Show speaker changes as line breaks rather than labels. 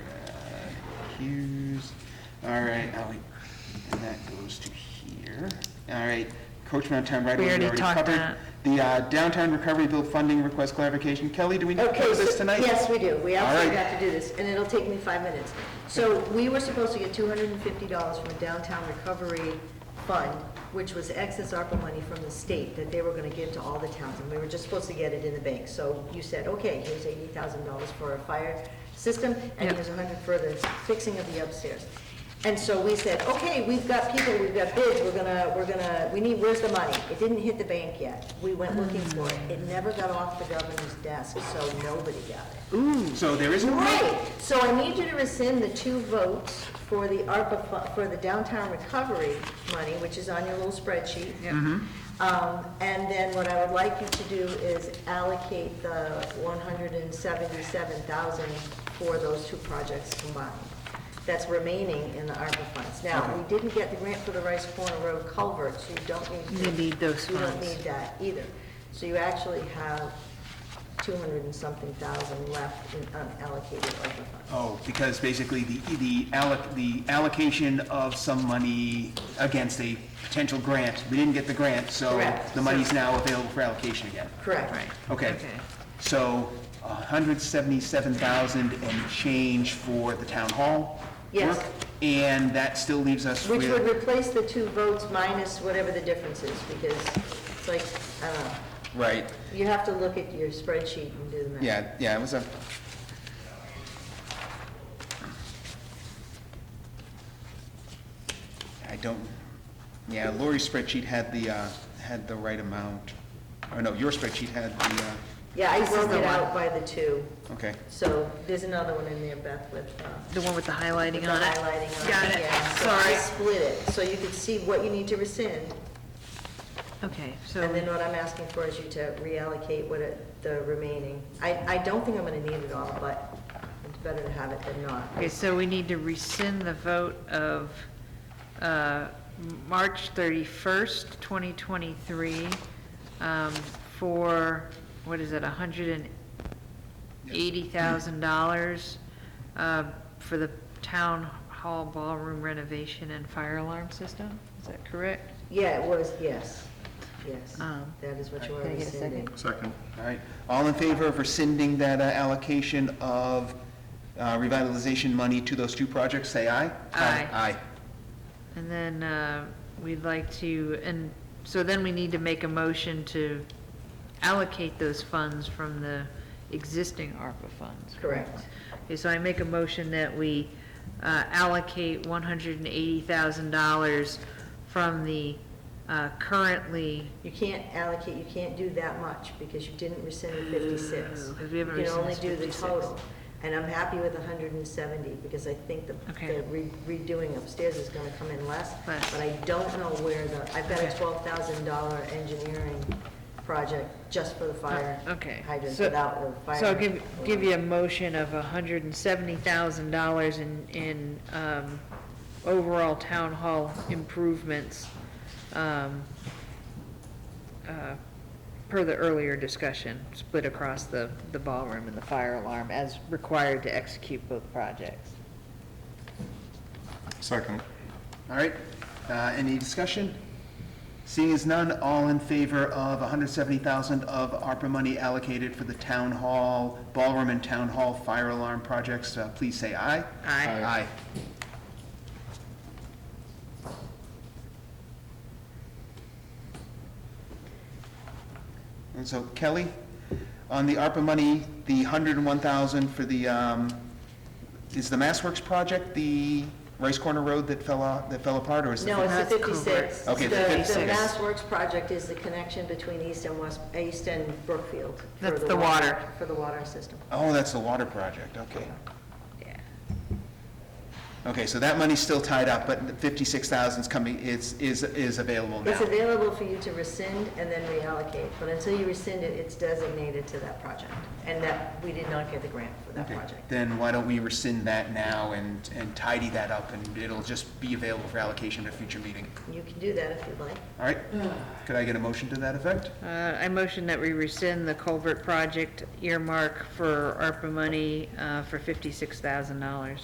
Hughes. Uh, All right, oh, wait, and that goes to here. All right, Coach Mountain right away,
We
we
already
already
talked
covered.
that.
The uh, downtown recovery bill funding request clarification. Kelly, do we need to
Okay,
close this
so-
tonight?
Yes, we do. We
All
absolutely
right.
have to do this, and it'll take me five minutes. So we were supposed to get two hundred and fifty dollars from the Downtown Recovery Fund, which was excess ARPA money from the state that they were gonna give to all the towns, and we were just supposed to get it in the bank. So you said, okay, here's eighty thousand dollars for a fire system, and
Yep.
here's a hundred for the fixing of the upstairs. And so we said, okay, we've got people, we've got bids, we're gonna, we're gonna, we need, where's the money? It didn't hit the bank yet. We went looking for it. It never got off the governor's desk, so nobody got it.
So there is a.
Right, so I need you to rescind the two votes for the ARPA, fu- for the downtown recovery money, which is on your little spreadsheet. Um, and then what I would like you to do is allocate the one hundred and seventy-seven thousand for those two projects combined. That's remaining in the ARPA funds. Now, we didn't get the grant for the Rice Corner Road culvert, so you don't need. to-
You need those
You don't
funds.
need that either. So you actually have two hundred and something thousand left in unallocated ARPA funds.
Oh, because basically the, the alloc, the allocation of some money against a potential grant. We didn't get the grant, so
Correct.
the money's now available for allocation again.
Correct.
Right.
Okay, so hundred seventy-seven thousand and change for the town hall
Yes.
work? And that still leaves us
Which would
with,
replace the two votes minus whatever the difference is, because it's like, I don't know.
right,
You have to look at your spreadsheet and do the math.
yeah, yeah, it was a, I don't, yeah, Lori's spreadsheet had the, uh, had the right amount, or no, your spreadsheet had the, uh,
Yeah, I broke
the
it
one.
out by the two,
okay.
so there's another one in there, Beth, with uh,
The one with the
with
highlighting
the
on it?
highlighting on it.
Got
yeah.
it,
So I
sorry.
split it, so you could see what you need to rescind,
Okay,
and then
so,
what I'm asking for is you to reallocate what it- the remaining. I, I don't think I'm gonna need it all, but it's better to have it than not.
okay, so we need to rescind the vote of uh, M- March 31st, 2023, um, for, what is it, $180,000 uh, for the town hall ballroom renovation and fire alarm system? Is that correct?
Yeah, it was, yes, yes.
Um,
That is what you are
can I get a second?
rescinding.
Second.
All right, all in favor of rescinding that uh, allocation of uh, revitalization money to those two projects, say aye?
Aye.
Aye.
And then uh, we'd like to, and so then we need to make a motion to allocate those funds from the existing ARPA funds.
Correct.
Okay, so I make a motion that we uh, allocate $180,000 from the uh, currently,
You can't allocate, you can't do that much because you didn't rescind the fifty-six.
Oh, 'cause we haven't rescinded
You can only do the
56.
total. And I'm happy with hundred and seventy because I think the
Okay.
the re- redoing upstairs is gonna come in less.
Less.
But I don't know where the, I've got a
Okay.
twelve thousand dollar engineering project just for the fire
Oh, okay.
hydrants
so-
without the fire.
So I'll give, give you a motion of $170,000 in, in um, overall town hall improvements, um, uh, per the earlier discussion, split across the, the ballroom and the fire alarm as required to execute both projects.
Second.
All right, uh, any discussion? Seeing as none, all in favor of 170,000 of ARPA money allocated for the town hall, ballroom and town hall fire alarm projects, uh, please say aye?
Aye.
Aye. And so Kelly, on the ARPA money, the 101,000 for the, um, is the MassWorks project the Rice Corner Road that fell out, that fell apart, or is it?
No, it's the
That's correct.
fifty-six.
Okay, the
The
56.
Mass Works project is the connection between east and west, east and Brookfield. for
That's the water.
For the water system.
Oh, that's the water project, okay.
Yeah.
Okay, so that money's still tied up, but the 56,000's coming, is, is, is available
It's
now.
available for you to rescind and then reallocate, but until you rescind it, it's designated to that project. And that, we did not get the grant for that
Okay,
project.
Then why don't we rescind that now and, and tidy that up, and it'll just be available for allocation at a future meeting?
You can do that if you'd like.
All right?
Mm.
Could I get a motion to that effect?
Uh, I motion that we rescind the culvert project earmark for ARPA money, uh, for $56,000.